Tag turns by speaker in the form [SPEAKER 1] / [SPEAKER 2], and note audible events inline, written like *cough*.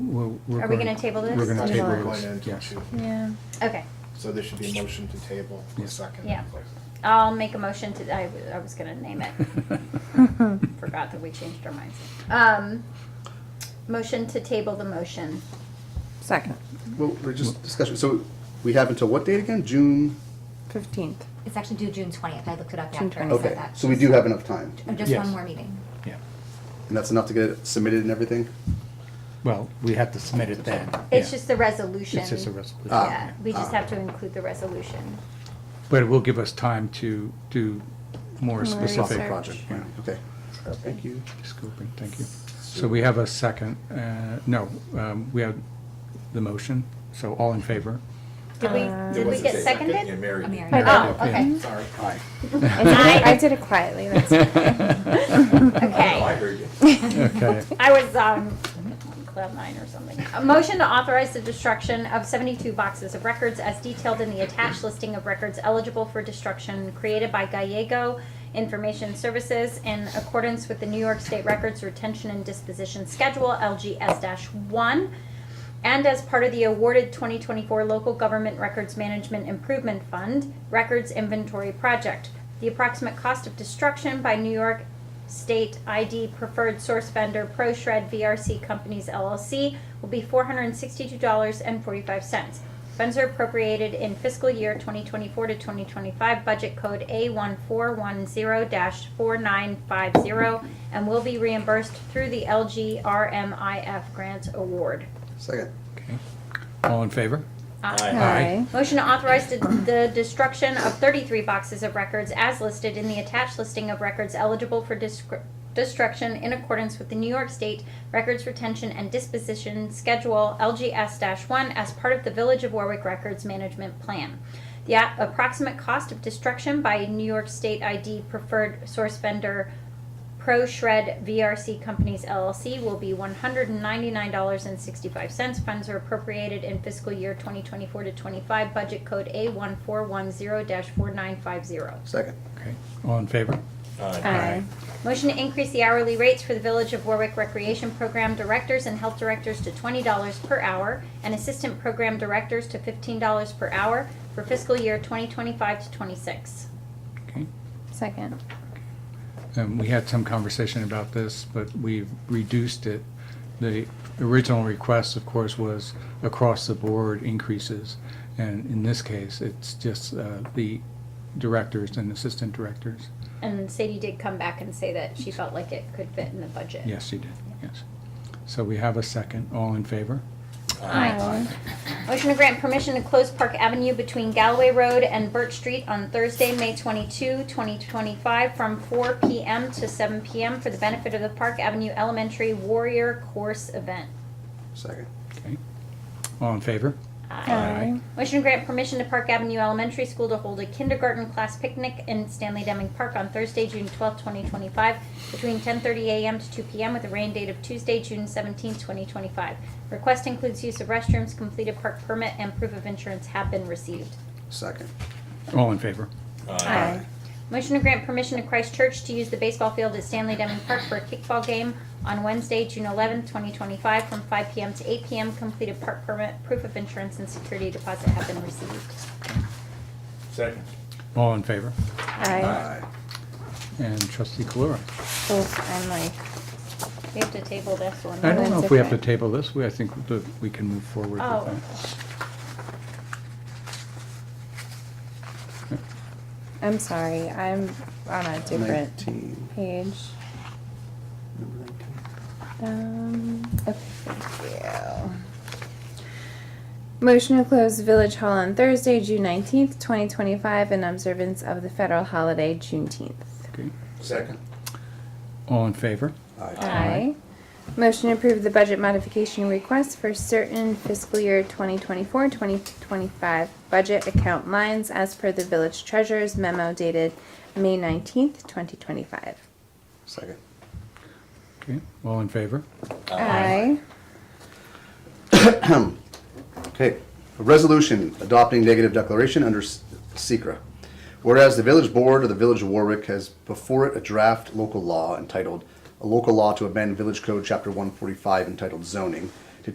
[SPEAKER 1] we're. we're
[SPEAKER 2] Are we
[SPEAKER 1] going-
[SPEAKER 2] gonna table this
[SPEAKER 1] We're gonna
[SPEAKER 2] till
[SPEAKER 1] table
[SPEAKER 2] March?
[SPEAKER 1] this,
[SPEAKER 3] Going into
[SPEAKER 1] yes.
[SPEAKER 3] two.
[SPEAKER 4] Yeah.
[SPEAKER 2] Okay,
[SPEAKER 3] So there should be a motion to table, a
[SPEAKER 1] Yeah.
[SPEAKER 3] second.
[SPEAKER 2] Yeah. I'll make a motion to, I, I was gonna name it, forgot that we changed our minds. Um, motion to table the motion,
[SPEAKER 4] Second,
[SPEAKER 5] Well, we're just discussion, so we have until what date again? June?
[SPEAKER 4] *laughs* fifteenth.
[SPEAKER 6] It's actually due June twentieth, I looked it up
[SPEAKER 4] June
[SPEAKER 6] after I
[SPEAKER 4] 20th.
[SPEAKER 6] said
[SPEAKER 5] Okay,
[SPEAKER 6] that.
[SPEAKER 5] so we do have enough time,
[SPEAKER 6] Oh, Just
[SPEAKER 1] Yes.
[SPEAKER 6] one more meeting.
[SPEAKER 1] Yeah,
[SPEAKER 5] and that's enough to get it submitted and everything?
[SPEAKER 1] well, we have to submit it then.
[SPEAKER 2] it's
[SPEAKER 1] yeah.
[SPEAKER 2] just the resolution.
[SPEAKER 1] It's just a resolution. Ah.
[SPEAKER 2] Yeah, we just have to include the resolution.
[SPEAKER 1] But it will give us time to do more specific.
[SPEAKER 4] research.
[SPEAKER 5] Project,
[SPEAKER 1] yeah,
[SPEAKER 5] right, okay.
[SPEAKER 1] Thank you. Scoping, thank you. So we have a second, uh, no, um, we have the motion, so all in favor?
[SPEAKER 2] Did we,
[SPEAKER 4] Uh,
[SPEAKER 2] did we
[SPEAKER 7] wasn't
[SPEAKER 2] get
[SPEAKER 7] a second, Yeah,
[SPEAKER 2] seconded?
[SPEAKER 7] Mary.
[SPEAKER 6] I'm
[SPEAKER 7] did.
[SPEAKER 6] here.
[SPEAKER 2] Oh,
[SPEAKER 1] Yeah.
[SPEAKER 2] okay,
[SPEAKER 3] Sorry.
[SPEAKER 4] I did it, I did it quietly. *laughs* That's
[SPEAKER 7] I know, I
[SPEAKER 2] okay.
[SPEAKER 7] heard you.
[SPEAKER 1] Okay,
[SPEAKER 2] I was, um, cloud nine or something. A motion to authorize the destruction of seventy-two boxes of records as detailed in the attached listing of records eligible for destruction created by Gallego Information Services in accordance with the New York State Records Retention and Disposition Schedule, LGS one, and as part of the awarded 2024 Local Government Records Management Improvement Fund Records Inventory Project. The approximate cost of destruction by New York State ID Preferred Source Vendor ProShred VRC Companies LLC will be $462.45. Funds are appropriated in fiscal year 2024 to 2025 budget code A1410-4950 and will be reimbursed through the LGRMIF grant award.
[SPEAKER 5] Second,
[SPEAKER 1] okay. All in favor?
[SPEAKER 7] Aye.
[SPEAKER 4] Aye.
[SPEAKER 2] Motion to authorize the- the destruction of 33 boxes of records as listed in the attached listing of records eligible for descri- destruction in accordance with the New York State Records Retention and Disposition Schedule LGS-1 as part of the Village of Warwick Records Management Plan. The a- approximate cost of destruction by New York State ID preferred source vendor ProShred VRC Companies LLC will be $199.65. Funds are appropriated in fiscal year 2024 to 25, budget code A1410-4950.
[SPEAKER 5] second,
[SPEAKER 1] Okay, all in favor?
[SPEAKER 7] Aye.
[SPEAKER 4] Aye.
[SPEAKER 2] Motion to increase the hourly rates for the Village of Warwick Recreation Program Directors and Health Directors to twenty dollars per hour and Assistant Program Directors to fifteen dollars per hour for fiscal year 2025 to 26.
[SPEAKER 1] Okay.
[SPEAKER 4] Second.
[SPEAKER 1] And we had some conversation about this, but we've reduced it. The original request, of course, was across the board increases. And in this case, it's just uh, the directors and assistant directors.
[SPEAKER 2] And Sadie did come back and say that she felt like it could fit in the budget.
[SPEAKER 1] Yes, you did, yes. So we have a second. All in favor?
[SPEAKER 4] Aye.
[SPEAKER 2] Motion to grant permission to close Park Avenue between Galloway Road and Birch Street on Thursday, May 22, 2025, from 4 p.m. to 7 p.m. for the benefit of the Park Avenue Elementary Warrior Course event.
[SPEAKER 5] second,
[SPEAKER 1] Okay. All in favor?
[SPEAKER 4] Aye.
[SPEAKER 2] Motion to grant permission to Park Avenue Elementary School to hold a kindergarten class picnic in Stanley Deming Park on Thursday, June twelfth, twenty 2025, between 10:30 a.m. to 2 p.m. with a rain date of Tuesday, June seventeenth, twenty 2025. Request includes use of restrooms, completed park permit, and proof of insurance have been received.
[SPEAKER 5] second,
[SPEAKER 1] All in favor?
[SPEAKER 4] Aye.
[SPEAKER 2] Motion to grant permission to Christ Church to use the baseball field at Stanley Deming Park for a kickball game on Wednesday, June 11, 2025, from 5 p.m. to 8 p.m. Completed park permit, proof of insurance, and security deposit have been received.
[SPEAKER 7] Second.
[SPEAKER 1] All in favor?
[SPEAKER 4] Aye.
[SPEAKER 5] aye.
[SPEAKER 1] And trustee Calora?
[SPEAKER 4] Oh, I'm like,
[SPEAKER 2] We have to table this one.
[SPEAKER 1] I
[SPEAKER 2] right?
[SPEAKER 1] don't know
[SPEAKER 4] That's
[SPEAKER 1] if we have to
[SPEAKER 4] okay.
[SPEAKER 1] table this. We, I think that we can move forward with
[SPEAKER 2] Oh.
[SPEAKER 1] that.
[SPEAKER 4] I'm sorry, I'm on a different
[SPEAKER 5] Nineteen.
[SPEAKER 4] page.
[SPEAKER 5] Number nineteen.
[SPEAKER 4] Um, okay, thank you. Motion to close Village Hall on Thursday, June nineteenth, twenty twenty-five, in observance of the federal holiday Juneteenth.
[SPEAKER 1] Okay.
[SPEAKER 5] Second.
[SPEAKER 1] All in favor?
[SPEAKER 5] Aye.
[SPEAKER 4] Aye. Motion to approve the budget modification request for certain fiscal year 2024-2025 budget account lines as per the village treasurer's memo dated May 19th, 2025.
[SPEAKER 5] Second.
[SPEAKER 1] Okay. All in favor?
[SPEAKER 4] Aye.
[SPEAKER 5] Okay, a resolution adopting negative declaration under S- Secra. Whereas the village board of the village of Warwick has before it a draft local law entitled, a local law to amend village code chapter one forty-five entitled zoning